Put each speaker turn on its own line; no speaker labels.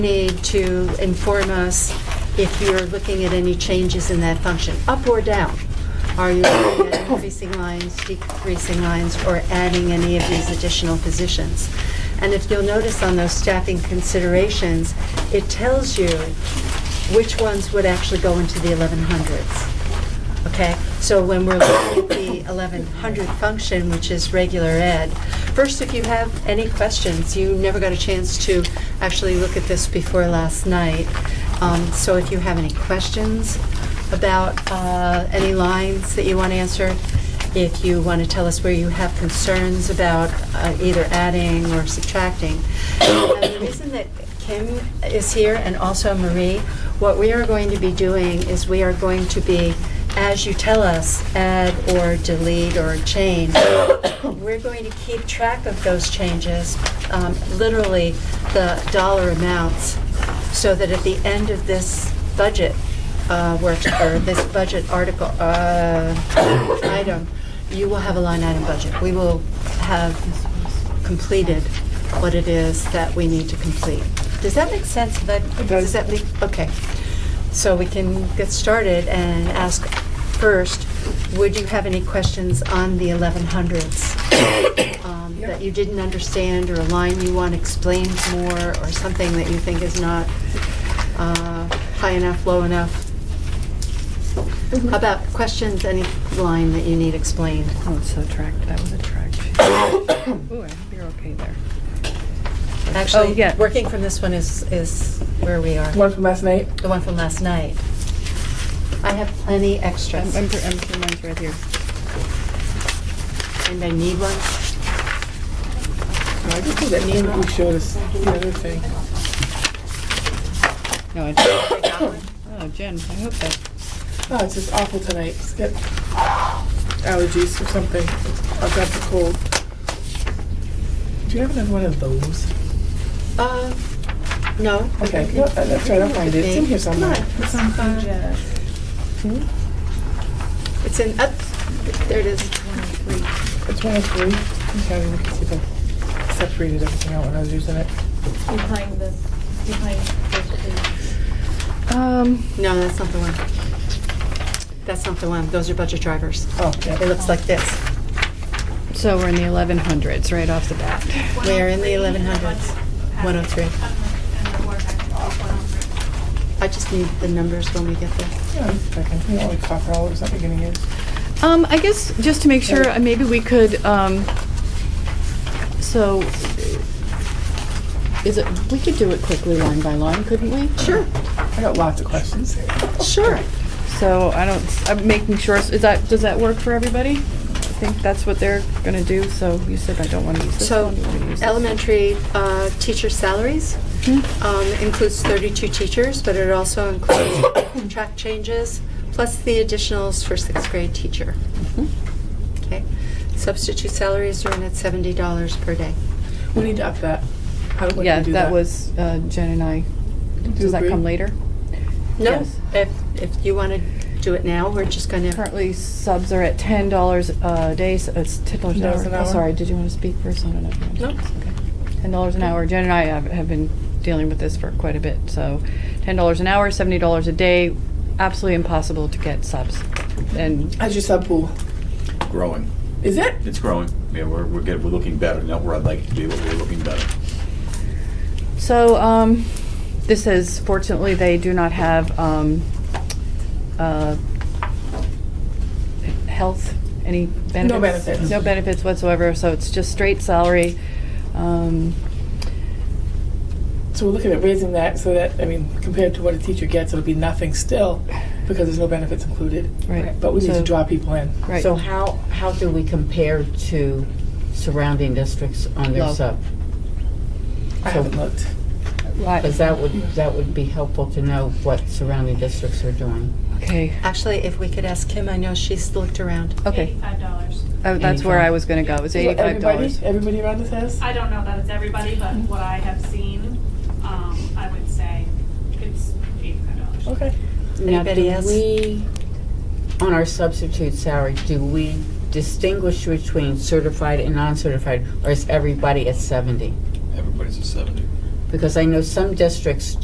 need to inform us if you're looking at any changes in that function, up or down. Are you looking at increasing lines, decreasing lines, or adding any of these additional positions? And if you'll notice on those staffing considerations, it tells you which ones would actually go into the 1100s. Okay, so when we're looking at the 1100 function, which is regular ed, first, if you have any questions, you never got a chance to actually look at this before last night. Um, So if you have any questions about uh, any lines that you want answered, if you want to tell us where you have concerns about uh, either adding or subtracting. And the reason that Kim is here and also Marie, what we are going to be doing is we are going to be, as you tell us, add or delete or change, we're going to keep track of those changes, um, literally the dollar amounts, so that at the end of this budget uh, work, or this budget article, uh, item, you will have a line item budget. We will have completed what it is that we need to complete. Does that make sense? That, does that make, okay. So we can get started and ask first, would you have any questions on the 1100s? um, That you didn't understand, or a line you want explained more, or something that you think is not uh, high enough, low enough?
Mm-hmm.
How about questions, any line that you need explained?
Oh, it's so tracked. That was a track. Ooh, I hope you're okay there.
Oh,
Actually,
yeah.
working from this one is, is where we are,
One from last night.
the one from last night. I have plenty
I'm,
extras,
I'm, pre- I'm pretty much right here.
and I need one.
I just think that name we showed us the other thing.
No, I don't. Oh, Jen, I hope that,
Oh, it's just awful tonight. It's got allergies or something. I've got the cold. Do you have another one of those?
Uh, no.
Okay, no, uh, that's right. I'll find it. It's in here somewhere.
It's on page.
Hmm?
It's in, up, there it is.
It's one of three. Okay, we can see if I separated everything out when I was using it.
behind the, behind the,
um,
No, that's not the one. That's not the one, those are budget drivers.
Oh, yeah.
It looks like this.
so we're in the eleven hundreds right off the bat.
We are in the 1100s, 103. I just need the numbers when we get there.
Yeah, I'm checking. You know, like copper all of something getting in.
Um, I guess just to make sure, uh, maybe we could, um, so, is it, we could do it quickly line by line, couldn't we? Sure.
I got lots of questions.
Sure.
So I don't, I'm making sure, is that, does that work for everybody? I think that's what they're gonna do, so you said I don't wanna use this
So
one. you wanna use this Hmm? one?
elementary uh, teacher salaries um, includes 32 teachers, but it also includes track changes, plus the additionals for sixth grade teacher.
Mm-hmm.
Okay. Substitute salaries are in at $70 per day.
We need to up that. How do we
Yeah,
do
that was uh, Jen and I.
Do you
Does that
agree?
come later?
No,
Yes.
if, if you want to do it now, we're just going to,
Currently, subs are at ten dollars a day, so it's ten dollars an
Dollars
hour.
an
Oh,
hour.
Sorry, did you want to speak first? I don't know.
No.
Okay. Ten dollars an hour. Jen and I have, have been dealing with this for quite a bit, so ten dollars an hour, seventy dollars a day, absolutely impossible to get subs. And
How's your sub pool?
growing.
Is it?
It's growing. Yeah, we're, we're good. We're looking better. Not where I'd like it to be, but we're looking better.
So, um, this says fortunately, they do not have, um, uh, health, any benefits?
benefits.
No benefits whatsoever, so it's just straight salary. Um,
So we're looking at raising that so that, I mean, compared to what a teacher gets, it'll be nothing still because there's no benefits included.
Right.
But we need to
So-
draw people in.
Right.
So how, how do we compare to surrounding districts on their
Low.
sub?
I haven't looked.
Because
Right.
that would, that would be helpful to know what surrounding districts are doing.
Okay,
actually, if we could ask Kim, I know she's looked around.
okay.
Eighty-five dollars.
Oh, That's where I was gonna go, it was
Is that
eighty-five dollars.
Everybody, everybody around this house?
I don't know that it's everybody, but what I have seen, um, I would say it's eighty-five dollars.
Okay.
Now,
Anybody
do
else?
we, on our substitute salary, do we distinguish between certified and non-certified? Or is everybody at seventy?
Everybody's at 70.
Because I know some districts